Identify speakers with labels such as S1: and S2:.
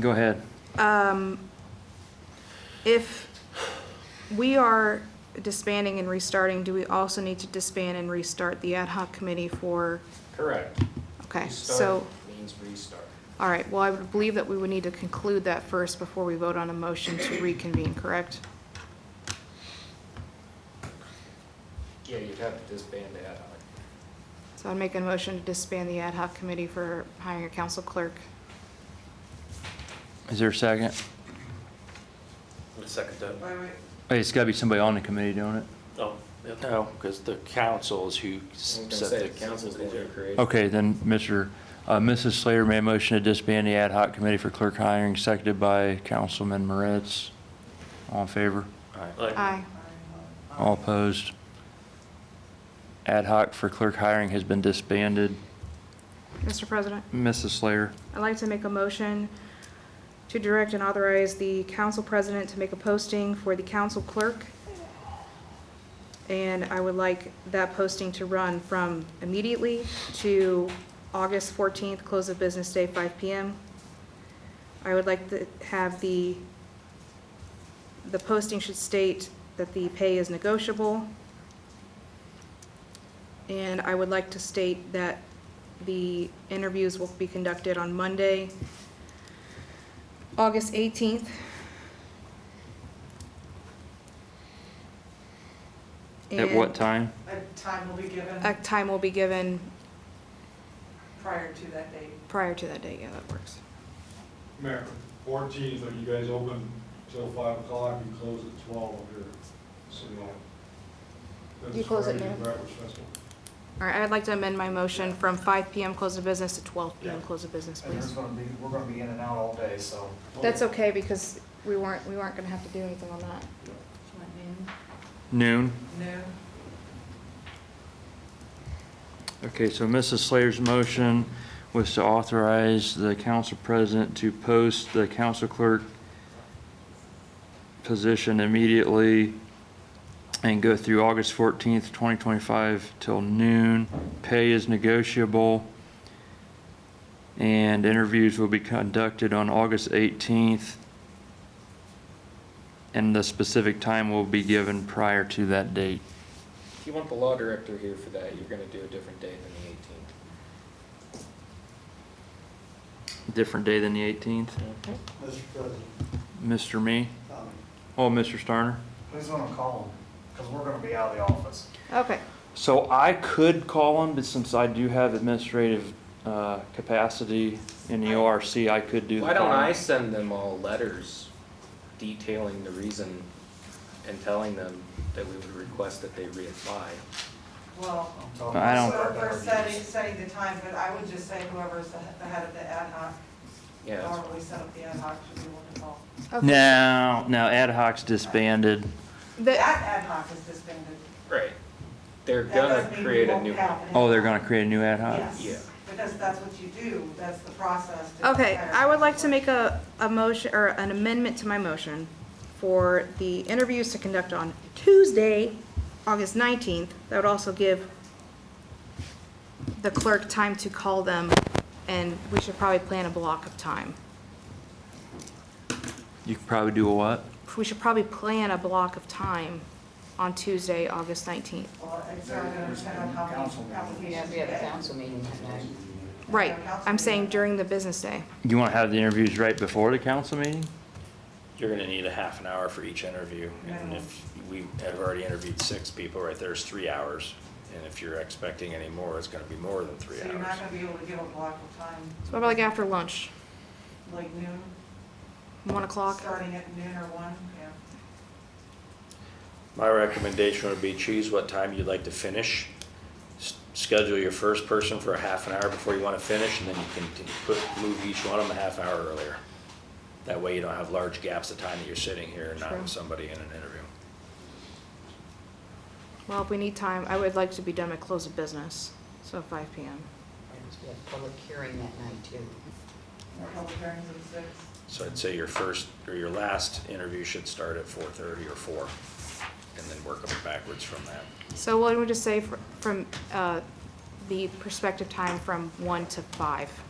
S1: Go ahead.
S2: Um, If we are disbanding and restarting, do we also need to disband and restart the ad hoc committee for,
S3: Correct.
S2: okay,
S3: Restart
S2: so,
S3: Means restart.
S2: all right, well, I would believe that we would need to conclude that first before we vote on a motion to reconvene, correct?
S3: Yeah, you'd have to disband the ad hoc.
S2: So I'd make a motion to disband the ad hoc committee for hiring a council clerk.
S1: Is there a second?
S4: The second that.
S5: Wait, wait,
S1: Hey, it's gotta be somebody on the committee doing it.
S4: Oh, no, because the council is who
S3: I was
S4: set
S3: gonna say,
S4: the
S3: the council's the one who created.
S1: Okay, then Mr., uh, Mrs. Slater made a motion to disband the ad hoc committee for clerk hiring, seconded by Councilman Moritz. All in favor?
S2: Aye.
S1: All opposed? Ad hoc for clerk hiring has been disbanded.
S2: Mr. President?
S1: Mrs. Slater,
S2: I'd like to make a motion to direct and authorize the council president to make a posting for the council clerk. And I would like that posting to run from immediately to August 14th, close of business day, 5 PM. I would like to have the, the posting should state that the pay is negotiable. And I would like to state that the interviews will be conducted on Monday, August 18th.
S1: at what
S2: And
S1: time?
S5: a time will be given
S2: A time will be given
S5: prior to that date.
S2: prior to that date, yeah, that works.
S6: Mayor, fourteenth, are you guys open till five o'clock and close at twelve up here? City Hall? That's
S2: You close at
S6: Friday,
S2: noon?
S6: Brentwood Festival.
S2: All right, I'd like to amend my motion from 5 PM close of business to 12 PM
S7: Yeah.
S2: close of business,
S7: And there's
S2: please.
S7: gonna be, we're gonna be in and out all day, so.
S2: That's okay, because we weren't, we weren't gonna have to do anything on that.
S1: Noon?
S5: Noon?
S1: Okay, so Mrs. Slater's motion was to authorize the council president to post the council clerk position immediately and go through August fourteenth, twenty twenty-five till noon. Pay is negotiable. And interviews will be conducted on August eighteenth. And the specific time will be given prior to that date.
S3: If you want the law director here for that, you're gonna do a different date than the eighteenth.
S1: Different day than the eighteenth.
S7: Mr. President,
S1: Mr. Me?
S7: um,
S1: Oh, Mr. Starner?
S7: who's gonna call them? Because we're gonna be out of the office.
S2: Okay,
S1: So I could call him, but since I do have administrative uh, capacity in the ORC, I could do the
S3: Why don't I
S1: calling.
S3: send them all letters detailing the reason and telling them that we would request that they reapply?
S5: Well,
S7: I'm talking
S1: I
S7: about
S1: don't-
S5: so we're
S7: our
S5: setting,
S7: interviews.
S5: setting the time, but I would just say whoever's the the head of the ad hoc,
S3: Yeah, that's
S5: normally set up the ad hoc, should be one to call.
S2: okay.
S1: No, no, ad hoc's disbanded.
S5: That
S2: The-
S5: ad hoc is disbanded.
S3: right. They're
S5: That
S3: gonna
S5: doesn't mean we
S3: create a
S5: won't
S3: new
S5: have
S3: one.
S5: an ad
S1: Oh, they're
S5: hoc.
S1: gonna create a new ad hoc?
S3: Yeah.
S5: Yes, because that's what you do, that's the process. to
S2: Okay,
S5: hire.
S2: I would like to make a, a motion, or an amendment to my motion for the interviews to conduct on Tuesday, August 19th. That would also give the clerk time to call them, and we should probably plan a block of time.
S1: You could probably do a what?
S2: We should probably plan a block of time on Tuesday, August 19th.
S5: Well, it's not gonna depend on how
S7: Council.
S5: many applications
S8: We
S5: you
S8: have a
S5: get.
S8: council meeting tonight.
S2: Right, I'm saying during the business day.
S1: You wanna have the interviews right before the council meeting?
S4: You're gonna need a half an hour for each interview, and
S5: Yeah.
S4: if we have already interviewed six people, right, there's three hours. And if you're expecting any more, it's gonna be more than three
S5: So you're not
S4: hours.
S5: gonna be able to give a block of time,
S2: So about like after lunch,
S5: like noon,
S2: 1 o'clock?
S5: starting at noon or one, yeah.
S4: My recommendation would be choose what time you'd like to finish. S- Schedule your first person for a half an hour before you wanna finish, and then you can t- put, move each one of them a half hour earlier. That way you don't have large gaps of time that you're sitting here and not
S2: True.
S4: with somebody in an interview.
S2: Well, if we need time, I would like to be done at close of business, so 5 PM.
S8: We have public hearing that night too.
S5: Our public hearings at six.
S4: So I'd say your first, or your last interview should start at four thirty or four, and then work them backwards from that.
S2: So what do we just say fr- from uh, the perspective time from 1 to 5?